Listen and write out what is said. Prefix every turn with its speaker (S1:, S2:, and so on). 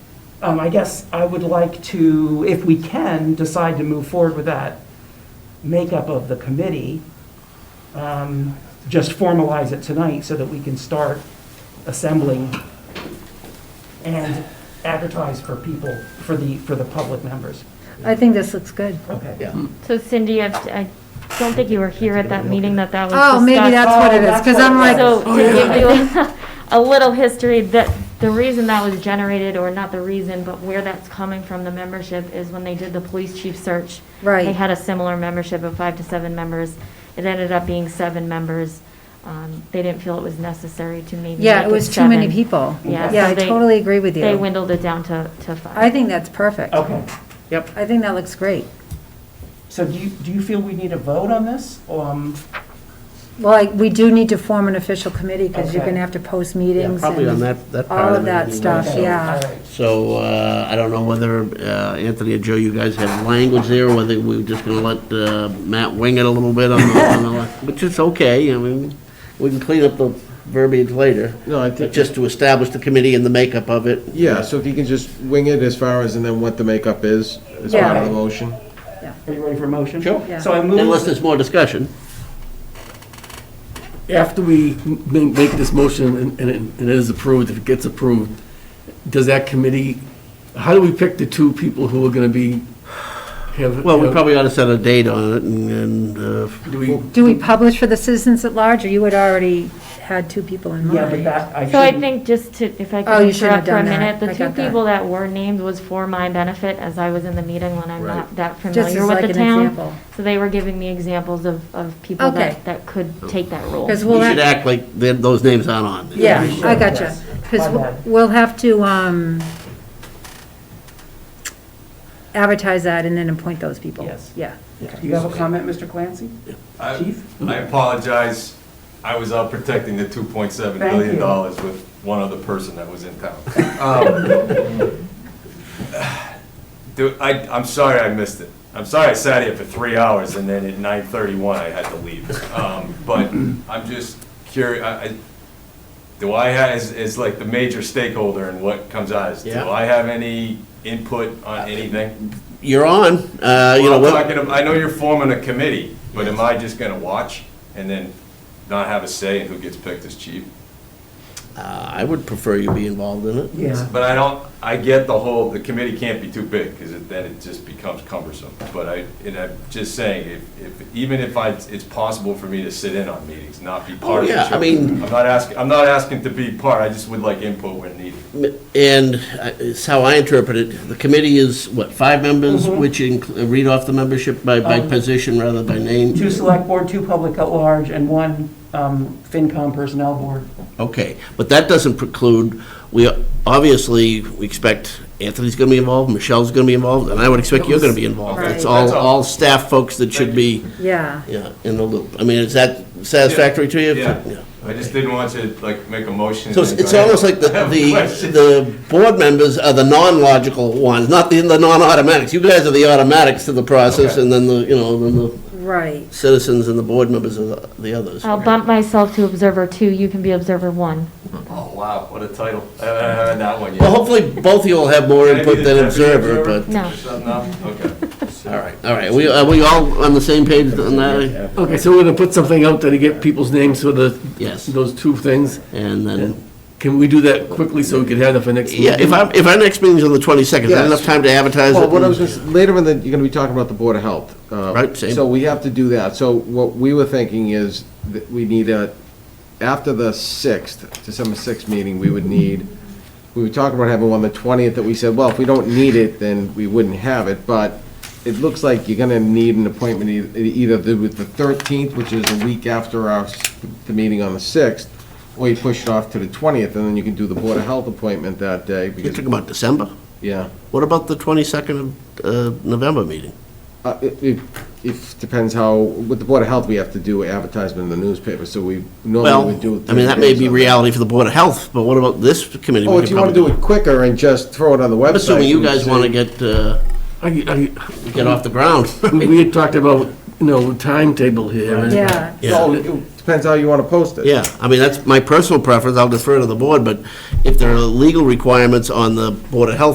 S1: um, I guess I would like to, if we can, decide to move forward with that makeup of the committee. Um, Just formalize it tonight so that we can start assembling and advertise for people, for the, for the public members.
S2: I think this looks good.
S1: Okay.
S3: Yeah.
S4: So Cindy, I, I don't think you were here at that meeting that that was discussed.
S2: Oh, maybe that's what it is,
S1: Oh,
S2: because I'm like, oh,
S4: So to give you a little history, that, the reason that was generated, or not the reason, but where that's coming from, the membership, is when they did the police chief search.
S2: Right.
S4: They had a similar membership of five to seven members. It ended up being seven members. Um, They didn't feel it was necessary to maybe
S2: yeah,
S4: make
S2: it was too many
S4: seven.
S2: people.
S4: Yeah,
S2: Yeah,
S4: so
S2: I
S4: they-
S2: totally agree with
S4: They
S2: you.
S4: dwindled it down to, to five.
S2: I think that's perfect.
S1: Okay, yep.
S2: I think that looks great.
S1: So do you, do you feel we need a vote on this? Um,
S2: Well, I- we do need to form an official committee, because you're
S1: Okay.
S2: going to have to post
S3: Yeah,
S2: meetings.
S3: probably on
S2: and-
S3: that, that
S2: all
S3: part
S2: of
S3: it
S2: that
S3: would be
S2: stuff,
S3: nice.
S1: okay,
S2: yeah.
S1: all right.
S3: So, uh, I don't know whether, uh, Anthony or Joe, you guys have language there, or whether we're just gonna let, uh, Matt wing it a little bit on the, on the, which is okay, I mean, we can clean up the verbiage later.
S5: No, I
S3: But
S5: think,
S3: just to establish the committee and the makeup of it.
S5: yeah, so if you can just wing it as far as, and then what the makeup is, as part of
S2: Yeah.
S5: the motion.
S1: Are you ready for a motion?
S3: Sure.
S2: Yeah.
S1: So I
S3: Unless
S1: move,
S3: there's more discussion.
S6: After we m- make this motion and- and it- and it is approved, if it gets approved, does that committee, how do we pick the two people who are going to be, have?
S3: Well, we
S6: have-
S3: probably ought to set a date on it and, and, uh,
S6: Do we,
S2: Do we publish for the citizens at large, or you had already had two people in mind?
S1: yeah, but that, I
S4: So I
S1: shouldn't,
S4: think just to, if I
S2: Oh,
S4: could
S2: you shouldn't have
S4: interrupt for a
S2: done that.
S4: minute,
S2: I
S4: the two
S2: got that.
S4: people that were named was for my benefit, as I was in the meeting when I'm
S5: Right.
S4: not that
S2: Just as
S4: familiar with
S2: like
S4: the
S2: an
S4: town.
S2: example.
S4: So they were giving me examples of, of people
S2: Okay.
S4: that, that could take that role.
S2: Because
S3: we
S2: we'll
S3: should
S2: have,
S3: act like th- those names aren't on. there.
S2: yeah,
S1: we should,
S2: I gotcha.
S1: yes.
S2: Because
S1: My bad.
S2: we'll have to um, advertise that and then appoint those people.
S1: Yes.
S2: Yeah.
S1: do you have a comment, Mr. Clancy?
S7: I-
S1: Chief?
S7: I apologize. I was out protecting the $2.7
S1: Thank
S7: billion dollars
S1: you.
S7: with one other person that was in town. Um, Dude, I, I'm sorry I missed it. I'm sorry I sat here for three hours and then at 9:31 I had to leave. Um, But I'm just curious, I, I- do I, ha- as, as like the major stakeholder in what comes out, is- do
S3: Yeah.
S7: I have any input on anything?
S3: You're on, uh, you know,
S7: Well, I'm
S3: what-
S7: talking, ab- I know you're forming a committee, but am I just gonna watch and then not have a say in who gets picked as chief?
S3: uh, I would prefer you be involved in it.
S1: Yeah.
S7: But I don't, I get the whole, the committee can't be too big, because then it just becomes cumbersome. But I, and I'm just saying, if, if, even if I, it's possible for me to sit in on meetings, not be part of the
S3: Oh, yeah, I
S7: show.
S3: mean-
S7: I'm not asking, I'm not asking to be part, I just would like input when needed.
S3: And I- it's how I interpret it, the committee is, what, five members,
S7: Mm-hmm.
S3: which include, read off the membership by, by
S1: Um,
S3: position rather by name?
S1: Two select board, two public at large, and one um, FinCom personnel board.
S3: Okay, but that doesn't preclude, we, obviously, we expect Anthony's gonna be involved, Michelle's gonna be involved, and I would expect you're gonna be involved.
S7: Okay,
S3: It's
S7: that's
S3: all,
S7: all.
S3: all staff folks that should be,
S2: Yeah.
S3: yeah, in the loop. I mean, is that satisfactory to you?
S7: Yeah, I just didn't want to, like, make a motion.
S3: So it's,
S7: and then
S3: it's
S7: go, "Hey,
S3: almost like the,
S7: I have a
S3: the,
S7: question."
S3: the board members are the non-logical ones, not the, the non-automatics. You guys are the automatics to the process,
S7: Okay.
S3: and then the, you know, then the
S2: Right.
S3: citizens and the board members are the, the others.
S4: I'll bump myself to observer two, you can be observer one.
S7: Oh, wow, what a title. I haven't heard that one yet.
S3: Well, hopefully, both of you will have more
S7: Can I be
S3: input
S7: the
S3: than
S7: deputy
S3: observer,
S7: observer?
S3: but,
S4: No.
S7: No, okay.
S3: all right, all right. We, are we all on the same page on that?
S6: okay, so we're going to put something out there to get people's names for the,
S3: Yes.
S6: those two things?
S3: And then,
S6: Can we do that quickly so we can have it for next?
S3: yeah, if
S6: meeting?
S3: our, if our next meeting's on the twenty-second, is that
S5: Yes.
S3: enough time to advertise it?
S5: Well, what I was
S3: and-
S5: gonna, s- later in the, you're gonna be talking about the Board of Health. uh,
S3: Right, same.
S5: So we have to do that. So what we were thinking is that we need a, after the sixth, December sixth meeting, we would need, we were talking about having one the twentieth that we said, well, if we don't need it, then we wouldn't have it, but it looks like you're gonna need an appointment e- either the- with the thirteenth, which is a week after our, s- the meeting on the sixth, or you push it off to the twentieth, and then you can do the Board of Health appointment that day,
S3: You're
S5: because,
S3: talking about December?
S5: yeah.
S3: What about the twenty-second of, uh, November meeting?
S5: Uh, It it- it depends how, with the Board of Health, we have to do advertisement in the newspaper, so we normally
S3: Well,
S5: would do it.
S3: I mean, that may
S5: thirty
S3: be
S5: days on-
S3: reality for the Board of Health, but what about this committee? We
S5: Oh,
S3: could
S5: if you want to do
S3: probably
S5: it quicker and just throw it on the website.
S3: I'm assuming you
S5: and
S3: guys
S5: say-
S3: want to get, uh,
S6: I-
S3: get off the ground.
S6: I- We had talked about, you know, timetable here. and-
S2: Yeah.
S5: Oh, it Depends how you want to post it.
S3: Yeah, I mean, that's my personal preference, I'll defer to the board, but if there are legal requirements on the Board of Health